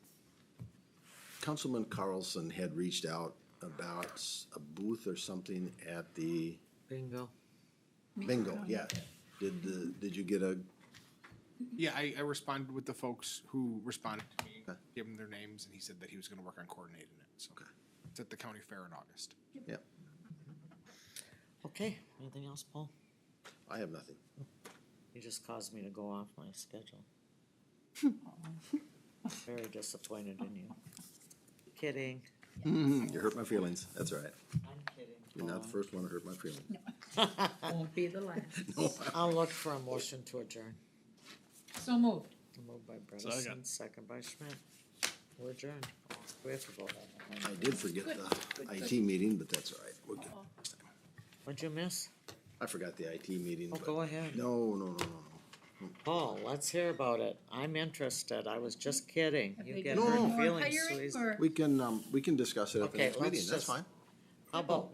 Councilman Carlson had reached out about s- a booth or something at the Bingo. bingo, yeah. Did the, did you get a, Yeah, I, I responded with the folks who responded to me, Okay. gave him their names, and he said that he was gonna work on coordinating it, so. It's at the county fair in August. yeah, Okay, anything else, Paul? I have nothing. You just caused me to go off my schedule. Very disappointed in you. Kidding. Mm-hmm, You hurt my feelings, that's all right. I'm kidding. You're not the Paul. first one to hurt my feelings. Won't be the last. No, I'll look for a motion to adjourn. So moved. Moved by Bredesen, second by Schmidt. We're adjourned. We have to vote on that I one. did forget the IT meeting, but that's all right. We're good. What'd you miss? I forgot the IT meeting. Oh, but- go ahead. No, no, no, no, no. Paul, let's hear about it. I'm interested. I was just kidding. You get No. hurt Or feelings, Hiring Louise. or- We can, um, we can discuss it at the Okay, next let's meeting, that's just- fine. How about